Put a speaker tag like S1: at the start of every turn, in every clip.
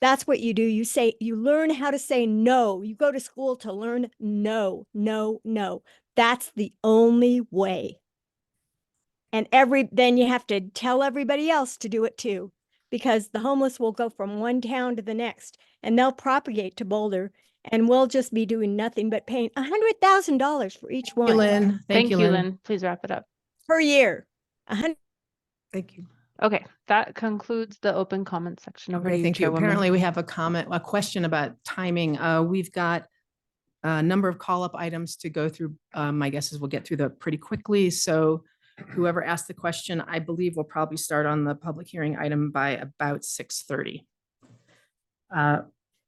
S1: That's what you do. You say, you learn how to say no. You go to school to learn no, no, no. That's the only way. And every, then you have to tell everybody else to do it too, because the homeless will go from one town to the next and they'll propagate to Boulder. And we'll just be doing nothing but paying a hundred thousand dollars for each
S2: Thank you,
S1: one
S2: Lynn.
S3: Oh, Thank you, Lynn. Please wrap it up.
S1: per year. A hundred,
S2: Thank you.
S3: Okay, that concludes the open comment section. Over to
S2: Okay,
S3: you,
S2: thank you. Apparently,
S3: Chairwoman.
S2: we have a comment, a question about timing. Uh, we've got a number of call-up items to go through. Um, my guess is we'll get through that pretty quickly. So whoever asked the question, I believe will probably start on the public hearing item by about six thirty. Uh,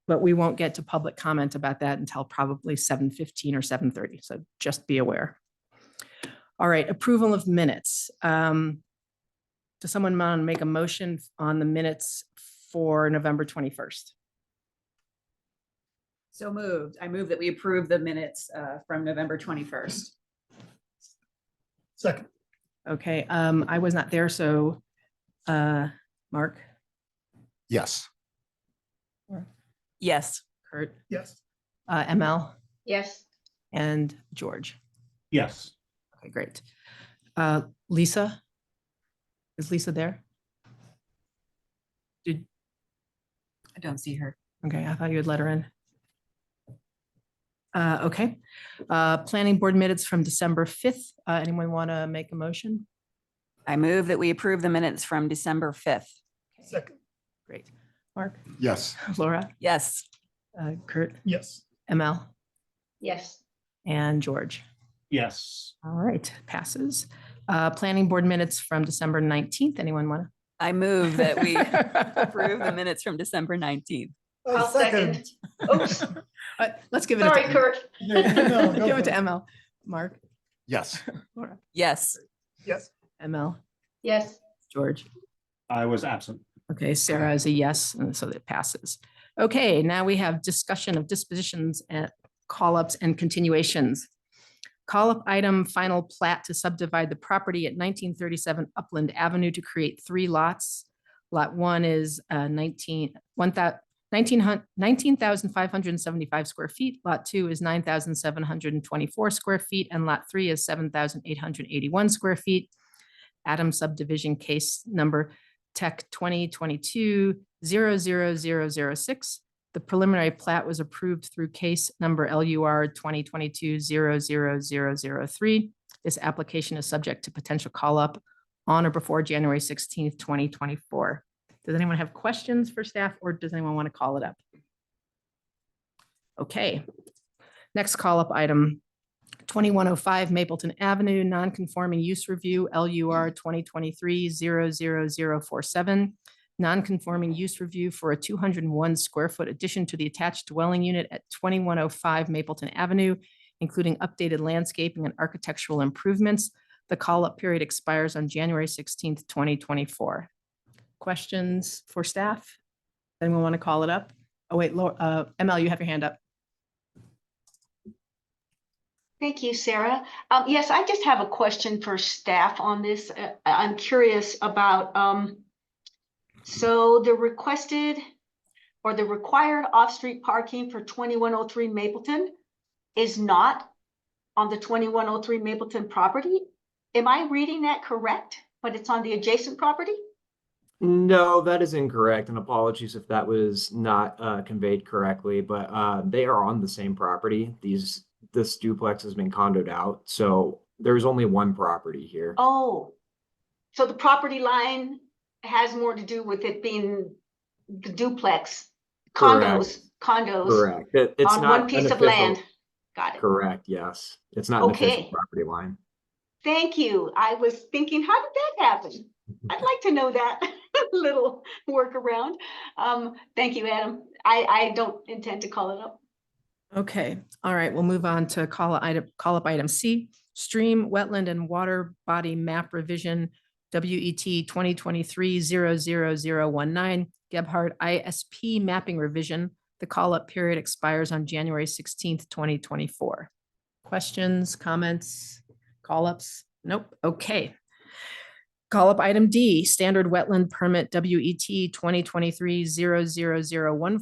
S2: But we won't get to public comment about that until probably seven fifteen or seven thirty. So just be aware. All right, approval of minutes. Um, Does someone mind make a motion on the minutes for November 21st?
S4: So moved. I move that we approve the minutes uh, from November 21st.
S5: Second,
S2: Okay, um, I was not there, so, uh, Mark,
S6: Yes.
S7: Yes.
S2: Kurt,
S5: yes.
S2: uh, ML,
S8: Yes.
S2: and George.
S5: Yes.
S2: Okay, great. Uh, Lisa? Is Lisa there? Did,
S7: I don't see her.
S2: okay, I thought you had let her in. Uh, okay, uh, planning board minutes from December 5th. Uh, anyone want to make a motion?
S7: I move that we approve the minutes from December 5th.
S5: Second,
S2: Great. Mark,
S6: Yes.
S2: Laura,
S7: Yes.
S2: uh, Kurt,
S5: yes.
S2: ML,
S8: Yes.
S2: and George.
S5: Yes.
S2: All right, passes. Uh, Planning board minutes from December 19th. Anyone want to?
S7: I move that we approve the minutes from December 19th.
S8: I'll second. Oops,
S2: Uh, Let's give it.
S8: sorry,
S2: to-
S8: Kurt.
S5: No, no, go
S2: Give it
S5: for
S2: to
S5: it.
S2: ML. Mark,
S6: Yes.
S2: Laura,
S7: Yes.
S5: Yes.
S2: ML,
S8: Yes.
S2: George.
S5: I was absent.
S2: Okay, Sarah is a yes, and so that passes. Okay, now we have discussion of dispositions and call-ups and continuations. Call-up item, final plat to subdivide the property at nineteen thirty-seven Upland Avenue to create three lots. Lot one is uh, nineteen, one thou- nineteen hun- 19,575 square feet. Lot two is nine thousand seven hundred and twenty-four square feet, and lot three is seven thousand eight hundred eighty-one square feet. Adam subdivision case number Tech 2022 00006. The preliminary plat was approved through case number LUR 2022 00003. This application is subject to potential call-up on or before January 16th, 2024. Does anyone have questions for staff or does anyone want to call it up? Okay. Next call-up item, 2105 Mapleton Avenue, non-conforming use review, LUR 2023-00047. Non-conforming use review for a 201 square foot addition to the attached dwelling unit at 2105 Mapleton Avenue, including updated landscaping and architectural improvements. The call-up period expires on January 16th, 2024. Questions for staff? Anyone want to call it up? Oh, wait, Laura, uh, ML, you have your hand up.
S8: Thank you, Sarah. Um, yes, I just have a question for staff on this. Uh, I- I'm curious about, um, so the requested or the required off-street parking for twenty-one oh three Mapleton is not on the twenty-one oh three Mapleton property? Am I reading that correct? But it's on the adjacent property?
S9: No, that is incorrect, and apologies if that was not uh, conveyed correctly, but uh, they are on the same property. These, this duplex has been condoed out, so there's only one property here.
S8: Oh, so the property line has more to do with it being duplex condos, condos
S9: Correct. It- It's
S8: on
S9: not
S8: one
S9: an
S8: piece of
S9: official-
S8: land. Got it.
S9: Correct, yes. It's not an official
S8: Okay.
S9: property line.
S8: Thank you. I was thinking, how did that happen? I'd like to know that little workaround. Um, thank you, Adam. I, I don't intend to call it up.
S2: Okay, all right, we'll move on to call a item, call up item C, stream, wetland and water body map revision, E WET 2023 00019, Gebhardt ISP mapping revision. The call up period expires on January 16th, 2024. Questions, comments, call ups? Nope, okay. Call E up item D, standard wetland permit WET 2023 00014